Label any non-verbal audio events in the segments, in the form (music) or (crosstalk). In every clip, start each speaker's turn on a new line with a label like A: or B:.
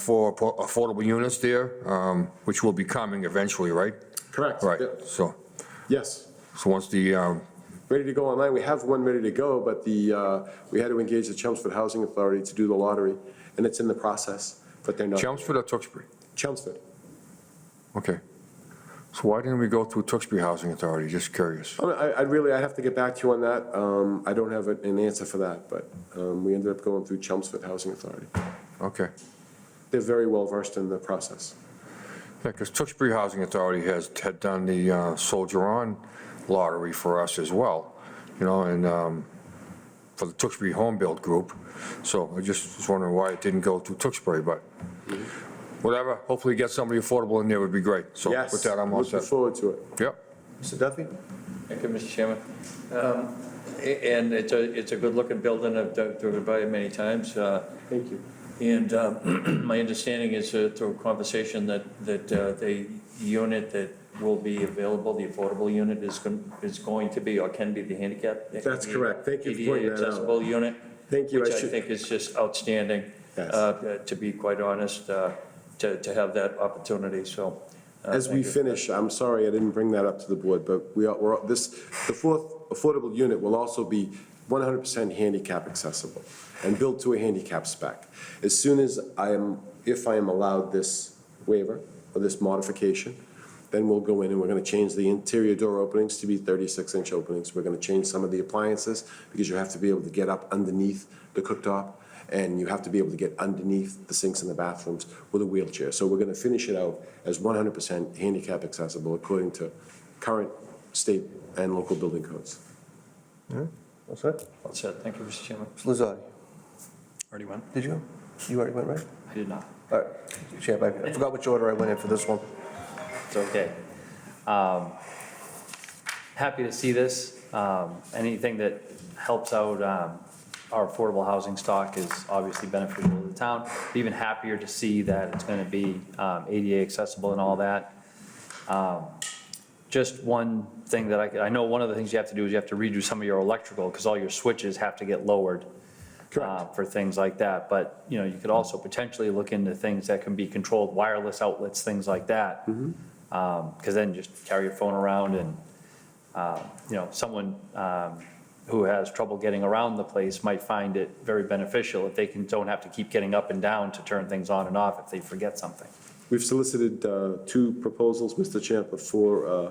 A: for po- affordable units there, um, which will be coming eventually, right?
B: Correct.
A: Right,
B: Yep.
A: so,
B: Yes.
A: so once the, um,
B: Ready to go online. We have one ready to go, but the, uh, we had to engage the Chelmsford Housing Authority to do the lottery, and it's in the process, but they're not.
A: Chelmsford or Tewksbury?
B: Chelmsford.
A: Okay. So why didn't we go through Tewksbury Housing Authority? Just curious.
B: Um, I- I, I really, I have to get back to you on that. Um, I don't have an an answer for that, but um, we ended up going through Chelmsford Housing Authority.
A: Okay.
B: They're very well versed in the process.
A: Yeah, because Tewksbury Housing Authority has, had done the uh, Soldier On lottery for us as well, you know, and um, for the Tewksbury Home Build Group. So I just was wondering why it didn't go through Tewksbury, but whatever. Hopefully get somebody affordable in there would be great. So
B: Yes.
A: with that, I'm all
B: Looking
A: set.
B: forward to it.
A: Yep.
C: Mr. Duffy?
D: Thank you, Mr. Chairman. Um, a- And it's a, it's a good-looking building, I've dug- driven by it many times. uh,
B: Thank you.
D: And um, (clears throat) my understanding is uh, through conversation that, that uh, the unit that will be available, the affordable unit is, gon- is going to be or can be the handicap.
B: That's correct. Thank you for
D: ADA
B: pointing that out.
D: accessible unit.
B: Thank you. I
D: Which I
B: should-
D: think is just outstanding,
B: Yes.
D: uh, to be quite honest, uh, to, to have that opportunity, so. uh,
B: As we
D: thank you.
B: finish, I'm sorry, I didn't bring that up to the board, but we are, we're, this, the fourth affordable unit will also be 100% handicap accessible and built to a handicap spec. As soon as I am, if I am allowed this waiver or this modification, then we'll go in and we're gonna change the interior door openings to be 36-inch openings. We're gonna change some of the appliances because you have to be able to get up underneath the cooktop and you have to be able to get underneath the sinks in the bathrooms with a wheelchair. So we're gonna finish it out as 100% handicap accessible according to current state and local building codes.
C: What's that?
D: All set. Thank you, Mr. Chairman.
C: Mr. Lozardi?
D: Already went?
C: Did you? You already went, right?
D: I did not.
C: All right. Champ, I I forgot which order I went in for this one.
E: It's okay. Um, Happy to see this. Um, Anything that helps out um, our affordable housing stock is obviously beneficial to the town. Even happier to see that it's going to be um, ADA accessible and all that. Um, Just one thing that I, could- I know one of the things you have to do is you have to redo some of your electrical because all your switches have to get lowered uh, for things like that. But, you know, you could also potentially look into things that can be controlled, wireless outlets, things like that. Because Um, then just carry your phone around and, uh, you know, someone um, who has trouble getting around the place might find it very beneficial if they can, don't have to keep getting up and down to turn things on and off if they forget something.
B: We've solicited uh, two proposals, Mr. Champa, for uh,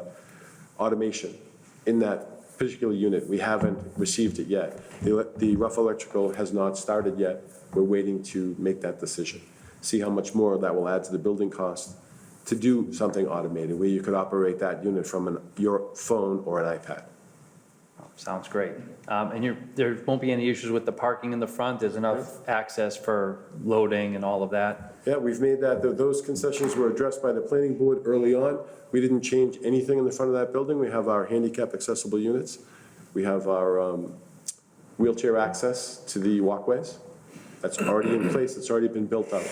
B: automation in that particular unit. We haven't received it yet. The ele- The rough electrical has not started yet. We're waiting to make that decision. See how much more that will add to the building cost to do something automated, where you could operate that unit from an- your phone or an iPad.
E: Sounds great. Um, And you're, there won't be any issues with the parking in the front? There's enough access for loading and all of that?
B: Yeah, we've made that, tho- those concessions were addressed by the planning board early on. We didn't change anything in the front of that building. We have our handicap accessible units. We have our um, wheelchair access to the walkways. That's already in place, it's already been built out.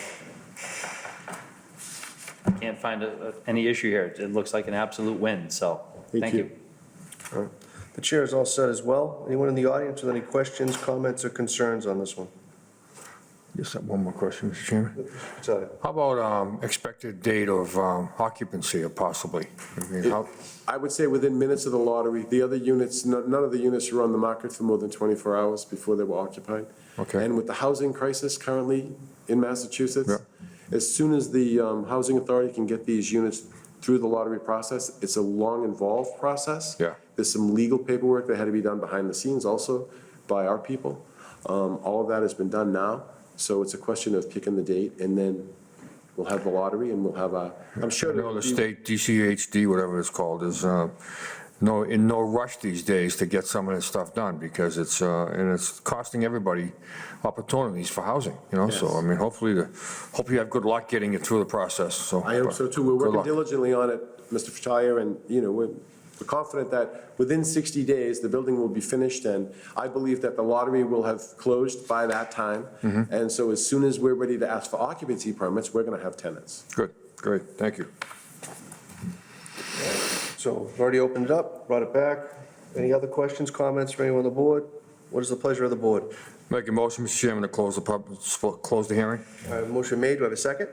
E: Can't find a- a- any issue here. It looks like an absolute win, so,
B: Thank
E: thank
B: you.
E: you.
C: The chair is all set as well. Anyone in the audience with any questions, comments, or concerns on this one?
A: Just have one more question, Mr. Chairman.
C: Sorry.
A: How about um, expected date of um, occupancy or possibly? I mean, how-
B: I would say within minutes of the lottery, the other units, no- none of the units were on the market for more than 24 hours before they were occupied.
A: Okay.
B: And with the housing crisis currently in Massachusetts,
A: Yeah.
B: as soon as the um, Housing Authority can get these units through the lottery process, it's a long involved process.
A: Yeah.
B: There's some legal paperwork that had to be done behind the scenes also by our people. Um, All of that has been done now, so it's a question of picking the date, and then we'll have the lottery, and we'll have a, I'm
A: I
B: sure.
A: know the
B: there'll be-
A: state DCHD, whatever it's called, is uh, no, in no rush these days to get some of this stuff done because it's, uh, and it's costing everybody opportunities for housing, you know, so,
B: Yes.
A: I mean, hopefully, the- hope you have good luck getting it through the process, so.
B: I hope so too. We're
A: Good
B: working
A: luck.
B: diligently on it, Mr. Fattaia, and, you know, we're we're confident that within 60 days, the building will be finished, and I believe that the lottery will have closed by that time.
A: Mm-hmm.
B: And so as soon as we're ready to ask for occupancy permits, we're going to have tenants.
A: Good, great, thank you.
C: So we've already opened it up, brought it back. Any other questions, comments from anyone on the board? What is the pleasure of the board?
A: Make a motion, Mr. Chairman, to close the pub, close the hearing?
C: All right, Motion made, do I have a second?